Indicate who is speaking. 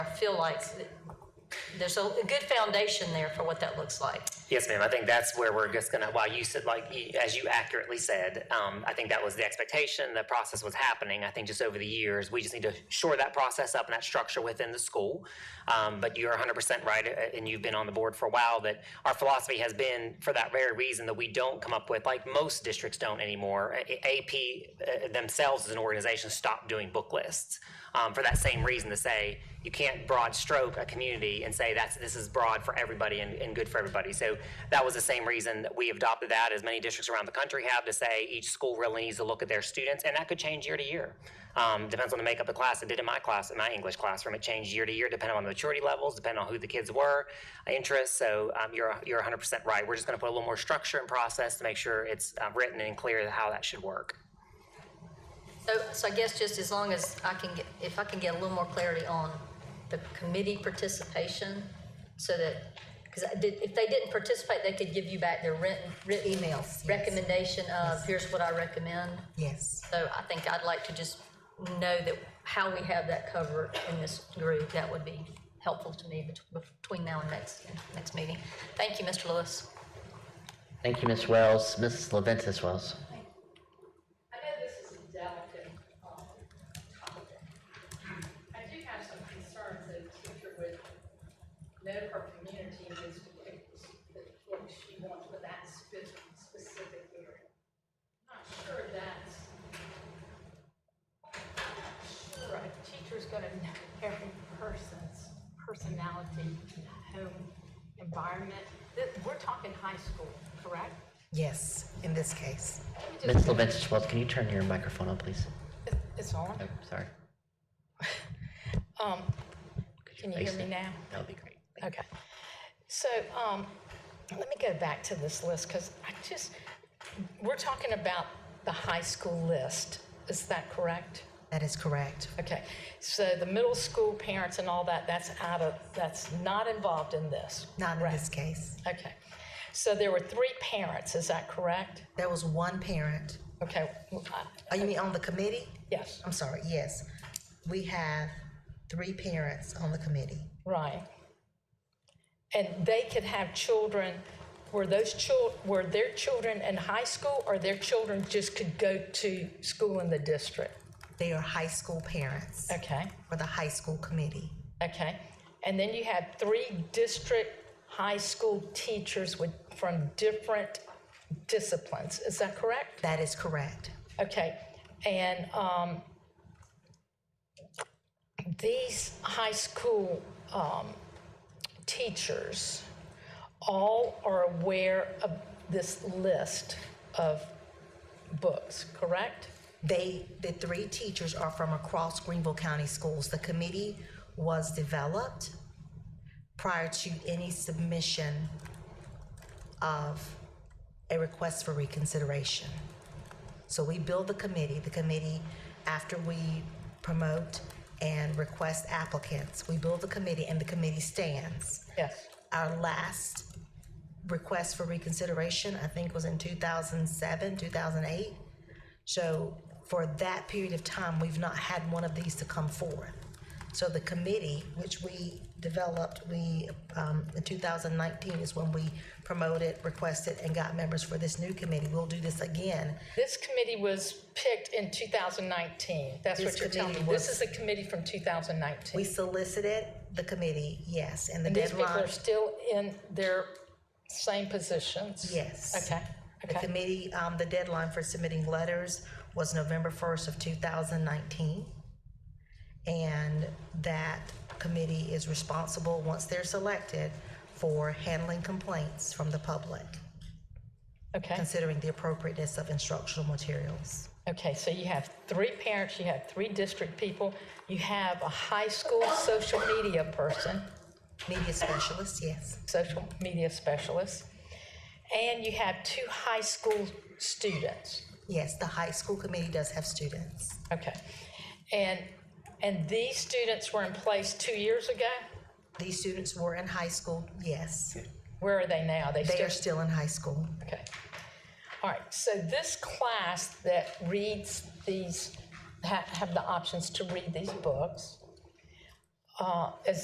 Speaker 1: I feel like there's a a good foundation there for what that looks like.
Speaker 2: Yes, ma'am. I think that's where we're just gonna, while you said, like, you- as you accurately said, um, I think that was the expectation, the process was happening. I think just over the years, we just need to shore that process up and that structure within the school. Um, but you're hundred percent right, uh, and you've been on the board for a while, that our philosophy has been, for that very reason, that we don't come up with, like most districts don't anymore, A- A- AP uh, themselves as an organization stopped doing book lists. Um, for that same reason, to say, you can't broad stroke a community and say that's this is broad for everybody and, and good for everybody. So that was the same reason that we adopted that, as many districts around the country have, to say each school really needs to look at their students, and that could change year to year. Um, depends on the makeup of the class. It did in my class, in my English classroom. It changed year to year, depending on the maturity levels, depending on who the kids were, uh, interests. So um, you're you're 100 percent right. We're just going to put a little more structure and process to make sure it's uh, written and clear how that should work.
Speaker 1: So, so I guess just as long as I can get, if I can get a little more clarity on the committee participation, so that, because if they didn't participate, they could give you back their written, written
Speaker 3: Emails, yes.
Speaker 1: Recommendation of, here's what I recommend.
Speaker 3: Yes.
Speaker 1: So I think I'd like to just know that how we have that covered in this group, that would be helpful to me bet- between now and next, next meeting. Thank you, Mr. Lewis.
Speaker 4: Thank you, Ms. Wells. Mrs. Leventis Wells.
Speaker 5: I know this is a delicate um, topic. I do have some concerns that a teacher would know her community needs to pick the kids she wants for that spe- specific area. Not sure that's, sure a teacher's gonna know every person's personality, home, environment. Th- We're talking high school, correct?
Speaker 3: Yes, in this case.
Speaker 5: Let me just-
Speaker 4: Ms. Leventis Wells, can you turn your microphone on, please?
Speaker 5: It's- It's on.
Speaker 4: Oh, sorry.
Speaker 5: Um,
Speaker 4: Could
Speaker 5: Can you
Speaker 4: face
Speaker 5: hear me
Speaker 4: it?
Speaker 5: now?
Speaker 4: That would be great.
Speaker 5: Okay. So, um, let me go back to this list, because I just, we're talking about the high school list. Is that correct?
Speaker 3: That is correct.
Speaker 5: Okay, so the middle school parents and all that, that's out of, that's not involved in this?
Speaker 3: Not in
Speaker 5: correct?
Speaker 3: this case.
Speaker 5: Okay. So there were three parents, is that correct?
Speaker 3: There was one parent.
Speaker 5: Okay, well, I-
Speaker 3: Oh, you mean on the committee?
Speaker 5: yes,
Speaker 3: I'm sorry, yes. We have three parents on the committee.
Speaker 5: right. And they could have children, were those chil, were their children in high school, or their children just could go to school in the district?
Speaker 3: They are high school parents
Speaker 5: Okay,
Speaker 3: for the high school committee.
Speaker 5: okay. And then you have three district high school teachers with, from different disciplines, is that correct?
Speaker 3: That is correct.
Speaker 5: Okay, and um, these high school um, teachers all are aware of this list of books, correct?
Speaker 3: They, the three teachers are from across Greenville County Schools. The committee was developed prior to any submission of a request for reconsideration. So we build the committee, the committee, after we promote and request applicants, we build the committee and the committee stands.
Speaker 5: Yes.
Speaker 3: Our last request for reconsideration, I think, was in 2007, 2008. So for that period of time, we've not had one of these to come forth. So the committee, which we developed, we, um, in 2019 is when we promoted, requested, and got members for this new committee. We'll do this again.
Speaker 5: This committee was picked in 2019, that's what
Speaker 3: This
Speaker 5: you're telling me.
Speaker 3: committee
Speaker 5: This
Speaker 3: was-
Speaker 5: is a committee from
Speaker 3: We
Speaker 5: 2019.
Speaker 3: solicited the committee, yes, and the
Speaker 5: And these people
Speaker 3: deadline.
Speaker 5: are still in their same positions?
Speaker 3: Yes.
Speaker 5: Okay,
Speaker 3: The
Speaker 5: okay.
Speaker 3: committee, um, the deadline for submitting letters was November first of two thousand nineteen. And that committee is responsible, once they're selected, for handling complaints from the public,
Speaker 5: Okay.
Speaker 3: considering the appropriateness of instructional materials.
Speaker 5: Okay, so you have three parents, you have three district people, you have a high school social media person,
Speaker 3: Media specialists, yes,
Speaker 5: social media specialist, and you have two high school students.
Speaker 3: yes, the high school committee does have students.
Speaker 5: Okay. And and these students were in place 2 years ago.
Speaker 3: These students were in high school, yes,
Speaker 5: Where are they now? They,
Speaker 3: they
Speaker 5: still
Speaker 3: are still in high school.
Speaker 5: Okay. All right, so this class that reads these, ha- have the options to read these books, uh, as